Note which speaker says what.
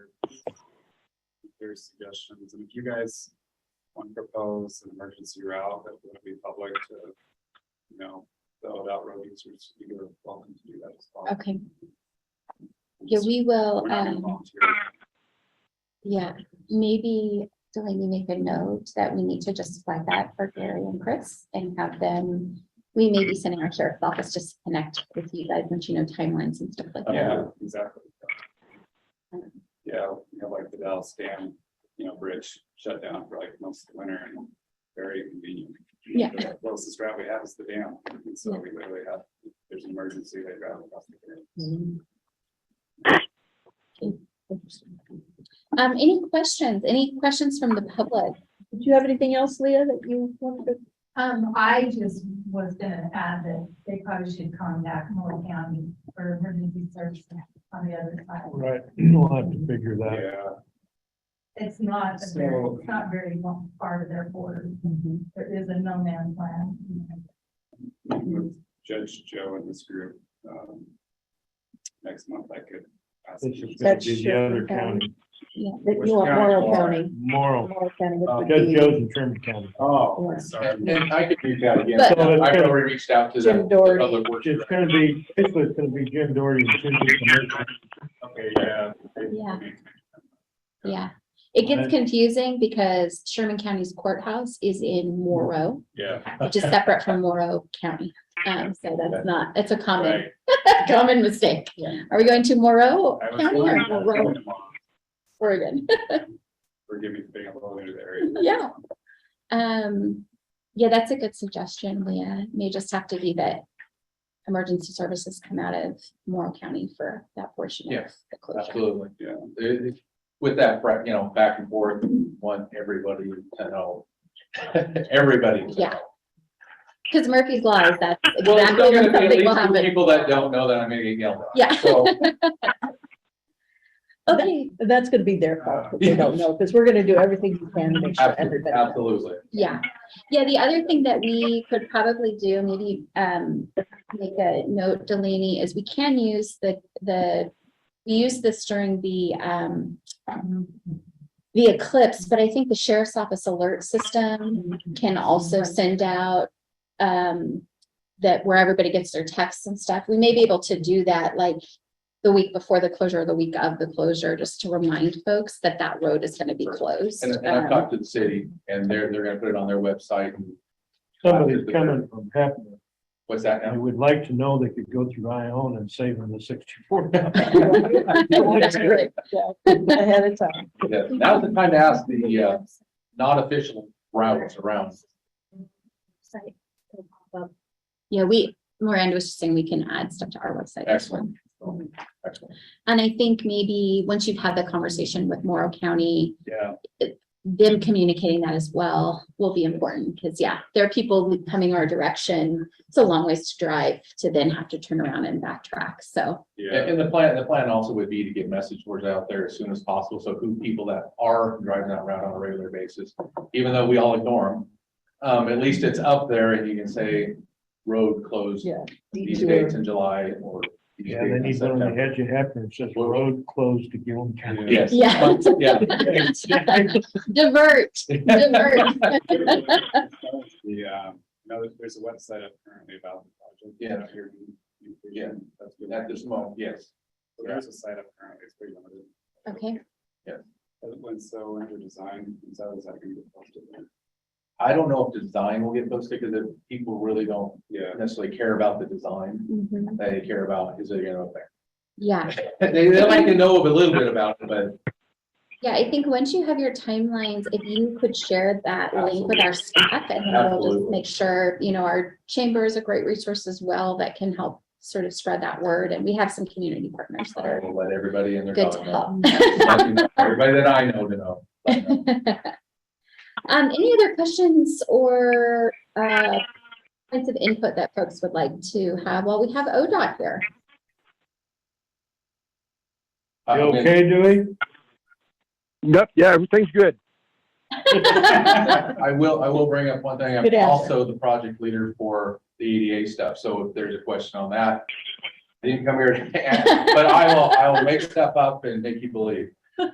Speaker 1: your suggestions, and if you guys want to propose an emergency route that would be public to, you know, the ODOT road users, you're welcome to do that as well.
Speaker 2: Okay, yeah, we will,
Speaker 1: We're not gonna
Speaker 2: um,
Speaker 1: volunteer.
Speaker 2: yeah, maybe Delaney make a note that we need to just flag that for Gary and Chris and have them. We may be sending our sheriff's office just to connect with you guys once you know timelines and stuff like that.
Speaker 1: Yeah, exactly. Yeah, you know, like the Dallas Dam, you know, bridge shut down for like most of the winter and very convenient.
Speaker 2: Yeah.
Speaker 1: The Closest route we have is the dam, and so we literally have, if there's an emergency, they drive across the dam.
Speaker 2: Um, any questions, any questions from the public?
Speaker 3: Did you have anything else, Leah, that you wanted to?
Speaker 4: Um, I just was gonna add that they probably should contact Moore County for emergency services on the other side.
Speaker 5: Right, we'll have to figure that.
Speaker 1: Yeah,
Speaker 4: It's not, a very-
Speaker 1: So-
Speaker 4: it's not very long part of their border.
Speaker 1: Mm-hmm.
Speaker 4: There is a no man's land.
Speaker 1: with Judge Joe and this group, um, next month I could. ask if she-
Speaker 3: That's
Speaker 5: Did the
Speaker 3: Sherman
Speaker 5: other
Speaker 3: County.
Speaker 5: county,
Speaker 3: That
Speaker 1: Which
Speaker 3: you want
Speaker 1: county?
Speaker 3: Morrow County.
Speaker 5: Morrow,
Speaker 3: Morrow County, which
Speaker 1: Uh,
Speaker 3: would
Speaker 5: Judge
Speaker 3: be
Speaker 5: Joe's in Sherman County.
Speaker 1: Oh,
Speaker 3: Yeah.
Speaker 1: sorry.
Speaker 6: And and I could reach out again.
Speaker 2: But-
Speaker 5: So it's
Speaker 6: I've
Speaker 5: gonna-
Speaker 6: already reached out to the.
Speaker 3: Jim Doherty.
Speaker 6: the public works
Speaker 5: It's
Speaker 6: director.
Speaker 5: gonna be, basically it's gonna be Jim Doherty and Cindy Commissioner.
Speaker 1: Okay, yeah.
Speaker 2: Yeah.
Speaker 1: Yeah.
Speaker 2: Yeah, it gets
Speaker 5: Right.
Speaker 2: confusing because Sherman County's courthouse is in Morrow,
Speaker 1: Yeah,
Speaker 2: which is separate from Morrow County. Um, so that's not, it's a common,
Speaker 1: right.
Speaker 2: common mistake. Are we going to Morrow
Speaker 1: I was
Speaker 2: County or
Speaker 1: wondering about
Speaker 2: Morrow,
Speaker 1: coming tomorrow.
Speaker 2: Oregon?
Speaker 1: Forgive me for being a little new there.
Speaker 2: Yeah. Um, yeah, that's a good suggestion, Leah. May just have to be that emergency services come out of Morrow County for that portion of
Speaker 6: Yes,
Speaker 2: the closure.
Speaker 6: Absolutely.
Speaker 1: Yeah.
Speaker 6: It- it- With that, fra- you know, back and forth, want everybody to know. Everybody. to
Speaker 2: Yeah.
Speaker 6: know.
Speaker 2: Because Murphy's Law is that's
Speaker 6: Well, there's
Speaker 2: exactly
Speaker 6: still
Speaker 2: when
Speaker 6: gonna be
Speaker 2: something
Speaker 6: at
Speaker 2: will
Speaker 6: least two
Speaker 2: happen.
Speaker 6: people that don't know that I'm gonna get yelled at.
Speaker 2: Yeah.
Speaker 6: So,
Speaker 2: Okay,
Speaker 3: That's gonna be their fault, if they don't know, because we're gonna do everything we can to make sure
Speaker 6: absolutely,
Speaker 3: everybody. knows.
Speaker 6: absolutely.
Speaker 2: Yeah, yeah, the other thing that we could probably do, maybe um make a note, Delaney, is we can use the the. We use this during the um. The eclipse, but I think the sheriff's office alert system can also
Speaker 6: Mm-hmm.
Speaker 2: send out um. That where everybody gets their texts and stuff, we may be able to do that like. The week before the closure or the week of the closure, just to remind folks that that road is gonna be closed.
Speaker 6: And and I've
Speaker 2: um,
Speaker 6: talked to the city and they're, they're gonna put it on their website. and
Speaker 5: Somebody's coming from Hefner.
Speaker 6: What's that
Speaker 5: I
Speaker 6: now?
Speaker 5: would like to know they could go through Ione and save them the sixty-four.
Speaker 3: That's great, yeah, Ahead of time.
Speaker 6: Yeah, Now's the time to ask the uh, non-official routes around.
Speaker 2: Yeah, we, Miranda was just saying we can add stuff to our website. as well.
Speaker 6: Excellent. Excellent.
Speaker 2: And I think maybe once you've had the conversation with Morrow County,
Speaker 1: Yeah,
Speaker 2: them communicating that as well will be important, because yeah, there are people coming our direction. It's a long ways to drive to then have to turn around and backtrack, so,
Speaker 1: yeah.
Speaker 6: And, and the plan, the plan also would be to get message boards out there as soon as possible, so who people that are driving that route on a regular basis, even though we all ignore them. Um, at least it's up there and you can say, road closed
Speaker 3: Yeah.
Speaker 6: these
Speaker 3: Detour.
Speaker 6: dates in July or. these
Speaker 5: Yeah,
Speaker 6: dates
Speaker 5: they
Speaker 6: in
Speaker 5: need one on
Speaker 6: September."
Speaker 5: the edge of Hefner, it says road closed to Gillum County.
Speaker 6: Yes.
Speaker 2: Yeah.
Speaker 6: but- Yeah.
Speaker 2: divert, divert.
Speaker 1: The, um, no, there's a website up currently about the project.
Speaker 6: Yeah.
Speaker 1: Out here in- in-
Speaker 6: Yeah.
Speaker 1: That's good.
Speaker 6: At this moment, yes.
Speaker 1: So There's a site up currently, it's pretty limited.
Speaker 2: Okay,
Speaker 1: Uh, When so under design, is that is that gonna get posted? then?
Speaker 6: I don't know if design will get posted because if people really don't
Speaker 1: Yeah,
Speaker 6: necessarily care about the design.
Speaker 2: mhm,
Speaker 6: They care about, is it gonna affect?
Speaker 2: yeah.
Speaker 6: They, they like to know a little bit about it, but
Speaker 2: Yeah, I think once you have your timelines, if you could share that link with our staff and then we'll just
Speaker 6: Absolutely.
Speaker 2: make sure, you know, our chamber is a great resource as well that can help sort of spread that word. And we have some community partners that
Speaker 6: I
Speaker 2: are
Speaker 6: will let everybody in their.
Speaker 2: good to
Speaker 6: dog know.
Speaker 2: help.
Speaker 6: Everybody that I know to know.
Speaker 2: Um, any other questions or, uh, points of input that folks would like to have? Well, we have ODOT here.
Speaker 6: Uh,
Speaker 5: You
Speaker 6: when-
Speaker 5: okay, Dewey?
Speaker 7: Yep, yeah, everything's good.
Speaker 6: I will, I will bring up one thing.
Speaker 3: Good
Speaker 6: I'm
Speaker 3: answer.
Speaker 6: also the project leader for the EDA stuff, so if there's a question on that, I didn't come here to ask, but I will, I will make stuff up and make you believe.